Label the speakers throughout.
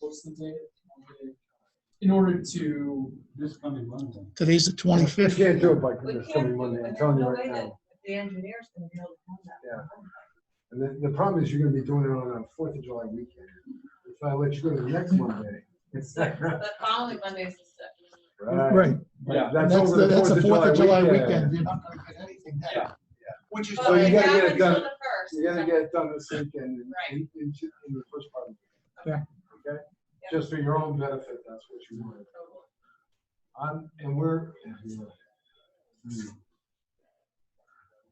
Speaker 1: what's the date? In order to,
Speaker 2: This coming Monday.
Speaker 3: Today's the
Speaker 4: You
Speaker 3: twenty-fifth.
Speaker 4: can't do it by
Speaker 5: We can't
Speaker 4: coming
Speaker 5: do it,
Speaker 4: Monday, I'm
Speaker 5: but
Speaker 4: telling you
Speaker 5: there's
Speaker 4: right
Speaker 5: no way that
Speaker 4: now.
Speaker 5: The engineer's gonna be able to come back.
Speaker 4: Yeah. And the, the problem is you're gonna be doing it on a Fourth of July weekend. If I let you go to the next Monday. it's not right.
Speaker 5: The following Monday's the sixth.
Speaker 3: Right,
Speaker 2: Yeah.
Speaker 3: that's
Speaker 4: That's over
Speaker 3: the,
Speaker 4: the
Speaker 3: that's the Fourth of July
Speaker 4: weekend.
Speaker 3: weekend. You're not gonna get anything done.
Speaker 2: Yeah.
Speaker 3: Which is
Speaker 4: So
Speaker 5: But
Speaker 4: you
Speaker 3: why,
Speaker 5: we
Speaker 4: gotta get
Speaker 5: have
Speaker 4: it done.
Speaker 5: until the first.
Speaker 4: You gotta get it done this weekend in,
Speaker 5: Right.
Speaker 4: in, in in the first part of the
Speaker 3: Yeah.
Speaker 4: weekend. Okay? Just for your own benefit, that's what you want. I'm, and we're. Hmm.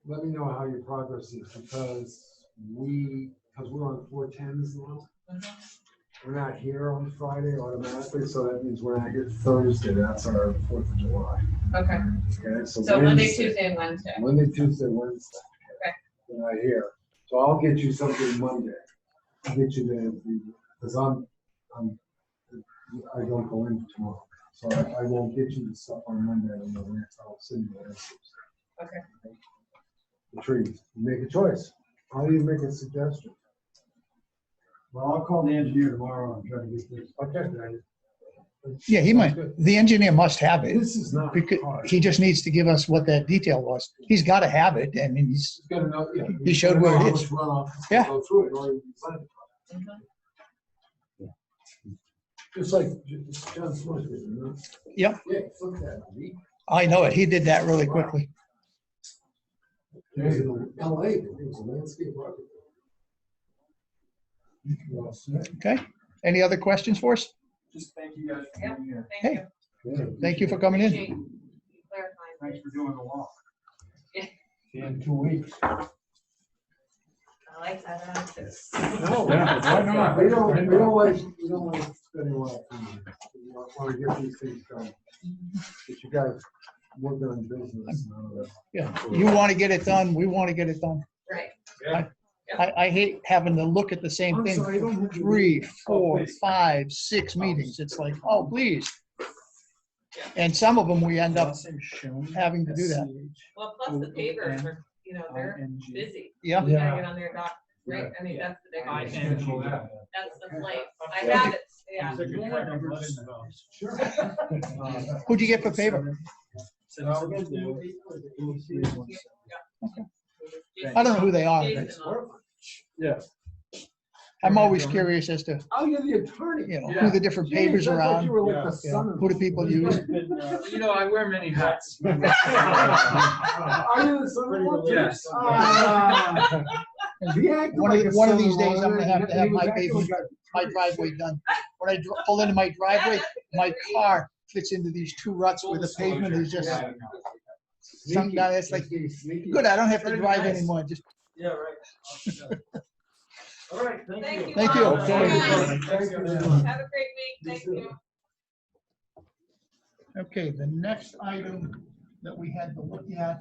Speaker 4: Let me know how your progress is because we, because we're on four tens now. We're not here on Friday automatically, so that means we're not here Thursday. That's our Fourth of July.
Speaker 5: Okay,
Speaker 4: Okay, so.
Speaker 5: so Monday,
Speaker 4: Wednesday-
Speaker 5: Tuesday, and Wednesday.
Speaker 4: Monday, Tuesday, Wednesday.
Speaker 5: Okay.
Speaker 4: Then I hear. So I'll get you something Monday. I'll get you the, because I'm, I'm, I don't go in tomorrow. So I, I won't get you the stuff on Monday. I don't know when. I'll send you the answers.
Speaker 5: Okay.
Speaker 4: The trees. Make a choice. How do you make a suggestion?
Speaker 2: Well, I'll call the engineer tomorrow and try to get this.
Speaker 4: Okay.
Speaker 3: yeah, he might, the engineer must have it.
Speaker 4: This is not
Speaker 3: Because
Speaker 4: hard.
Speaker 3: he just needs to give us what that detail was. He's gotta have it. I mean, he's,
Speaker 4: He's gotta know, yeah.
Speaker 3: He showed where it is. Yeah.
Speaker 4: Yeah.
Speaker 5: Mhm.
Speaker 4: Just like J- John Smith, did, you know?
Speaker 3: Yep.
Speaker 4: Yeah, look at that. He-
Speaker 3: I know it. He did that really quickly.
Speaker 4: he was in LA, he was a landscape architect. You're all set.
Speaker 3: Okay? Any other questions for us?
Speaker 2: Just thank you guys for being here.
Speaker 5: Thank
Speaker 3: Hey,
Speaker 5: you.
Speaker 4: Yeah.
Speaker 3: Thank you for coming in.
Speaker 5: Appreciate you clarifying.
Speaker 2: Thanks for doing the walk.
Speaker 5: Yeah.
Speaker 2: See you in two weeks.
Speaker 5: I like that answer.
Speaker 4: No, we
Speaker 2: Yeah, why not?
Speaker 4: don't, we don't like, we don't like spending a lot of time. We want want to get these things done. But you guys work on business. and all that.
Speaker 3: Yeah, you wanna get it done. We wanna get it done.
Speaker 5: Right.
Speaker 3: I, I hate having to look at the same
Speaker 4: I'm
Speaker 3: thing
Speaker 4: sorry, I don't Oh,
Speaker 3: for
Speaker 4: have to-
Speaker 3: three, four,
Speaker 2: please.
Speaker 3: five, six meetings. It's like, oh, please. And some of them, we end up having to do that.
Speaker 5: Well, plus the pavers are, you know, they're busy.
Speaker 3: Yeah.
Speaker 5: You
Speaker 4: Yeah.
Speaker 5: gotta get on their dock, right? I mean, that's the big
Speaker 2: I
Speaker 5: one.
Speaker 2: schedule that.
Speaker 5: That's the place. I have it, yeah.
Speaker 2: Take your time, I'm letting you know.
Speaker 4: Sure.
Speaker 2: Uh,
Speaker 3: Who'd you get for favor?
Speaker 2: I'll get the-
Speaker 3: I don't know who they are. but
Speaker 5: Jason on-
Speaker 2: Yeah.
Speaker 3: I'm always curious as to,
Speaker 4: Oh, you're the attorney.
Speaker 3: you know, who the different papers
Speaker 4: Jeez, I thought
Speaker 3: around,
Speaker 4: you were like the
Speaker 3: Yeah.
Speaker 4: son of-
Speaker 3: who do people use.
Speaker 2: You know, I wear many hats.
Speaker 4: Are you the son of one?
Speaker 2: Yes.
Speaker 4: Ah. He acted
Speaker 3: One of-
Speaker 4: like a
Speaker 3: one of these
Speaker 4: son-in-law,
Speaker 3: days I'm gonna
Speaker 4: and
Speaker 3: have to
Speaker 4: he
Speaker 3: have
Speaker 4: was
Speaker 3: my
Speaker 4: acting
Speaker 3: baby-
Speaker 4: like
Speaker 3: my driveway done. When I dr- pull into my driveway, my car fits into these two ruts where the pavement is just,
Speaker 2: Yeah.
Speaker 3: some guy that's like, good, I don't have to drive anymore, just
Speaker 2: Yeah, right. All right,
Speaker 5: Thank you.
Speaker 3: Thank you.
Speaker 5: all.
Speaker 4: Okay.
Speaker 2: Thanks, everyone.
Speaker 5: Have a great week. Thank you.
Speaker 3: Okay, the next item that we had to look at.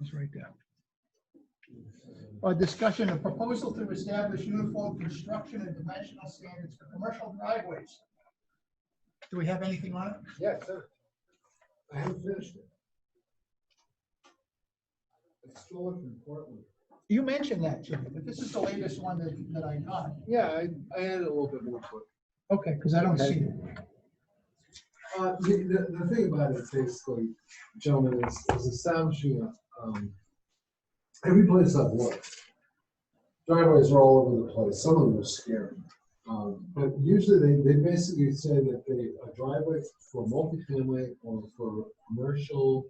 Speaker 3: Is right there. A discussion, a proposal to establish uniform construction and dimensional standards for commercial driveways. Do we have anything on it?
Speaker 4: Yes, sir. I haven't finished it. It's still looking important.
Speaker 3: You mentioned that, Jim, but this is the latest one that, that I got.
Speaker 4: Yeah, I, I added a little bit more to it.
Speaker 3: Okay, because I don't see it.
Speaker 4: Uh, the, the, the thing about it basically, gentlemen, is, is establishing, a, um, every place I've worked, driveways are all over the place, some of them are scary. Um, but usually they, they basically say that they, a driveway for multifamily or for commercial,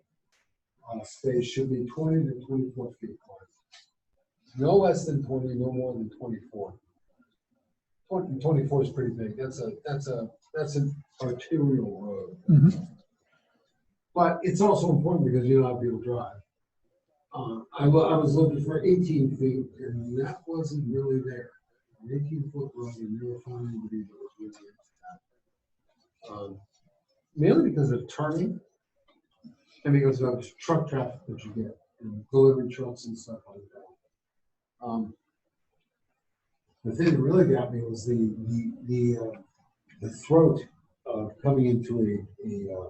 Speaker 4: uh, space should be twenty to twenty-four feet wide. No less than twenty, no more than twenty-four. Twenty, twenty-four is pretty big, that's a, that's a, that's an arterial road. But it's also important because you don't have people drive. Uh, I, wa- I was looking for eighteen feet and that wasn't really there. An Eighteen foot road and never found anybody that was really into that. Um, Mainly because of turning. And because of truck traffic that you get, and delivery trucks and stuff like that. Um, The thing that really got me was the, the, the, uh, the throat of coming into uh, a, a, uh,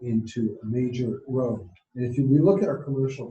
Speaker 4: into a major road. And if you, we look at our commercial